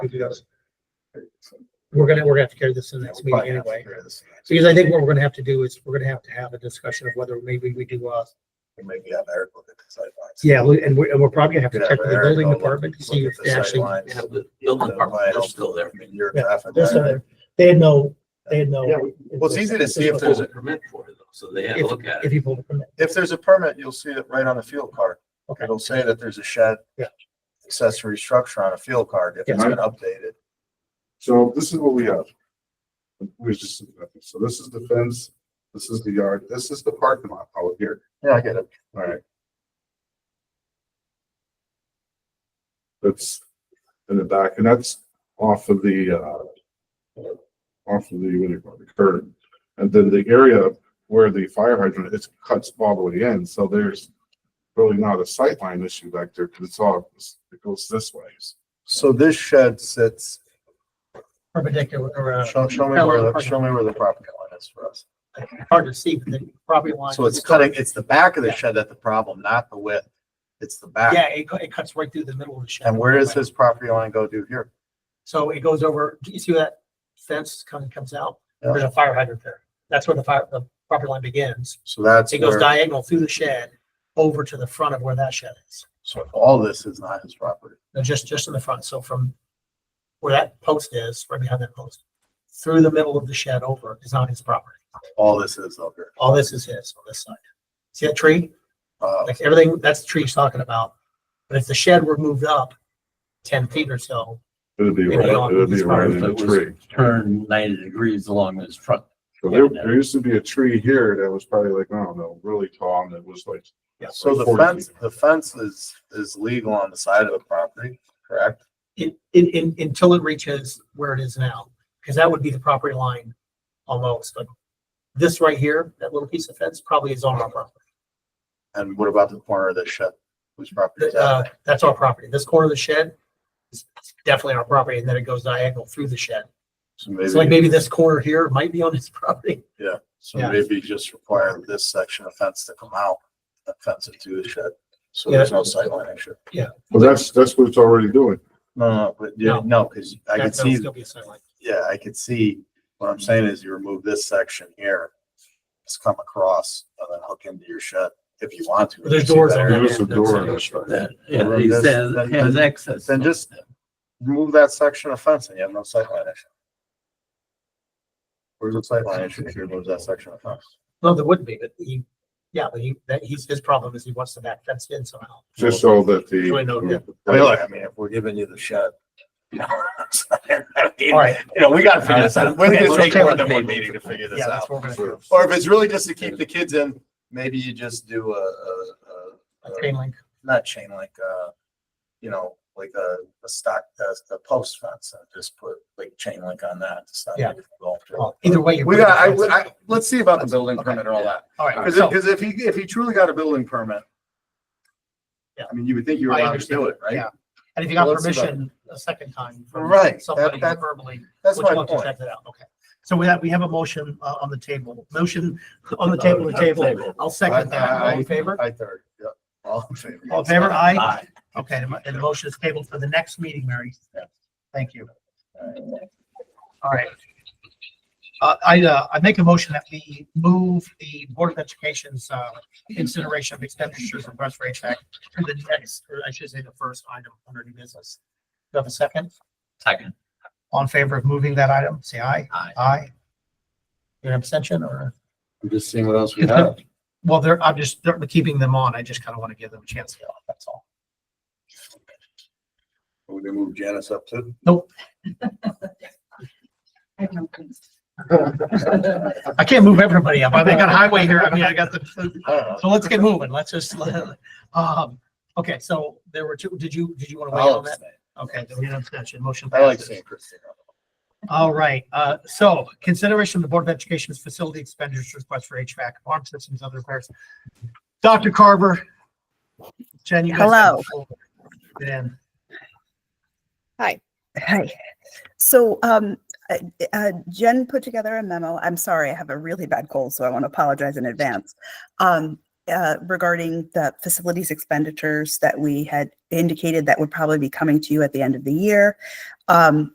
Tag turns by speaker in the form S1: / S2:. S1: Yes.
S2: We're gonna, we're gonna have to carry this in the next meeting anyway, because I think what we're gonna have to do is, we're gonna have to have a discussion of whether maybe we do, uh,
S1: Maybe have Eric look at the sidelines.
S2: yeah, we- and we're, and we're probably gonna have to
S1: Could have
S2: check with the
S1: Eric
S2: building
S1: go look-
S2: department to
S1: look
S2: see
S1: at
S2: if
S1: the
S2: they actually.
S1: sidelines.
S3: Yeah, the
S1: Uh,
S3: building department, they're still there.
S1: Your
S2: Yeah,
S1: traffic.
S2: They're still there. They had no, they had no.
S1: Yeah, well, it's easy to see if
S3: There's a permit for it though, so they had to look at
S2: If
S3: it.
S2: you pull the permit.
S1: If there's a permit, you'll see it right on the field card.
S2: Okay.
S1: It'll say that there's a shed.
S2: Yeah.
S1: Accessory structure on a field card if it's
S2: Yes.
S1: been updated.
S4: So this is what we have. We was just, so this is the fence, this is the yard, this is the parking lot out here,
S1: Yeah, I get it.
S4: alright. That's in the back, and that's off of the, uh, off of the, what do you call it, the curb. And then the area where the fire hydrant, it cuts all the way in, so there's really not a sightline issue back there, because it's all, it goes this way.
S1: So this shed sits,
S2: Perpendicular uh, around.
S1: show, show me where, the show me where the property line is for us.
S2: Hard to see, but the property line.
S1: So it's cutting, it's the back of the shed that the problem, not the width. It's the back.
S2: Yeah, it, cu- it cuts right through the middle of the shed.
S1: And where does his property line go to here?
S2: So it goes over, do you see that fence kind of comes out?
S1: Yeah.
S2: There's a fire hydrant there. That's where the fire, the property line begins.
S1: So that's
S2: It goes
S1: where,
S2: diagonal through the shed over to the front of where that shed is.
S1: so all this is not his property.
S2: No, just, just in the front. So from where that post is, right behind that post, through the middle of the shed over is on his property.
S1: All this is up here.
S2: All this is his on this side. See that tree?
S1: Uh,
S2: Like everything, that's the tree he's talking about. But if the shed were moved up ten feet or so,
S4: It'd be,
S2: Maybe
S4: right-
S2: on
S4: it'd be
S2: this
S4: right
S3: part,
S4: in
S3: but
S4: the
S3: it was-
S4: tree.
S3: Turn ninety degrees along this front.
S4: So there, there used to be a tree here that was probably like, I don't know, really tall and it was like.
S2: Yeah,
S1: So the
S4: 40
S1: fence, the fence is, is legal on the side of the property, correct?
S2: in, in, in, until it reaches where it is now, because that would be the property line almost, but this right here, that little piece of fence probably is on our property.
S1: And what about the corner of the shed? Whose property is
S2: That,
S1: that?
S2: uh, that's our property. This corner of the shed is definitely our property, and then it goes diagonal through the shed.
S1: So
S2: So like
S1: maybe,
S2: maybe this corner here might be on his property.
S1: so
S2: yeah.
S1: maybe just require this section of fence to come out, and fence it to the shed. So
S2: Yeah.
S1: there's no sightline issue.
S4: Well, that's, that's what it's already doing.
S1: No, no, but yeah, no, because I could
S2: That- that'll
S1: see,
S2: Still be a sideline.
S1: yeah, I could see, what I'm saying is you remove this section here. Just come across and then hook into your shed if you want to.
S2: There's
S1: See
S2: doors
S1: better.
S2: on that
S4: There's a
S2: end.
S4: door on
S2: That's-
S4: this side.
S3: That, yeah,
S1: Well,
S3: he
S1: that's-
S3: says,
S1: then-
S3: has
S1: then-
S3: access.
S1: then just- Remove that section of fence and you have no sightline issue. Where's the sightline issue if you remove that section of fence?
S2: No, there wouldn't be, but he, yeah, but he, that, he's, his problem is he wants the back fence in somehow.
S4: Just so that
S2: Really no
S4: the.
S2: different.
S1: I mean, look, I mean, if we're giving you the shed. you know, I mean,
S2: All right.
S1: You know, we gotta
S2: Uh,
S1: figure this out. We're gonna
S3: Let's
S1: take
S3: take
S1: more
S3: one
S1: than one
S3: table.
S1: meeting to figure this
S2: Yeah, that's
S1: out.
S2: what we're gonna do.
S1: Or if it's really just to keep the kids in, maybe you just do a, a, a,
S2: A chain link.
S1: not chain, like, uh, you know, like a, a stock, a, a post fence and just put like chain link on that. It's not
S2: Yeah.
S1: difficult.
S2: Well, either way. you're
S1: We
S2: putting
S1: got, I,
S2: the fence in.
S1: would- I, let's see about the building
S2: Okay.
S1: permit and all that.
S2: All right.
S1: Cause
S2: so-
S1: if, 'cause if he, if he truly got a building permit.
S2: Yeah.
S1: I mean, you would think you were
S2: I
S1: allowed to do it, right?
S2: Yeah. And if you got
S1: Well, that's about-
S2: permission a second time. from
S1: Right, that-
S2: Somebody
S1: that-
S2: verbally.
S1: That's
S2: would you
S1: my
S2: want to
S1: point.
S2: check that out? Okay. So we have, we have a motion uh, on the table, motion on the table, the table. I'll second that. All
S1: Uh,
S2: in favor?
S1: I third, yep. All in favor.
S2: All in favor? Aye.
S3: Aye.
S2: Okay, and the- and the motion is tabled for the next meeting, Mary. Thank you. All right. Uh, I, uh, I make a motion that we move the Board of Education's, uh, consideration of expenditures from West Range Act to the next, or I should say the first item under new business. Do you have a second?
S3: Second,
S2: All in favor of moving that item, say aye.
S3: aye.
S2: Aye. An abstention or,
S1: I'm just seeing what else we have.
S2: well, they're, I'm just, they're keeping them on. I just kind of want to give them a chance to go. That's all.
S1: We're gonna move Janice up too.
S5: I have no clue.
S2: I can't move everybody up. I think on highway here, I mean, I got the,
S1: I don't know.
S2: so let's get moving. Let's just, let- um, okay, so there were two, did you, did you want to weigh in
S1: I'll
S2: on that?
S1: abstain.
S2: Okay, there was an abstention, motion
S1: I like
S2: passes.
S1: seeing Christina.
S2: All right, uh, so consideration of the Board of Education's facility expenditures request for HVAC, alarm systems, other repairs. Dr. Carver. Jen, you guys. have the floor. Get in.
S6: Hi. So um, uh, uh, Jen put together a memo. I'm sorry, I have a really bad cold, so I want to apologize in advance. Um, uh, regarding the facilities expenditures that we had indicated that would probably be coming to you at the end of the year. Um,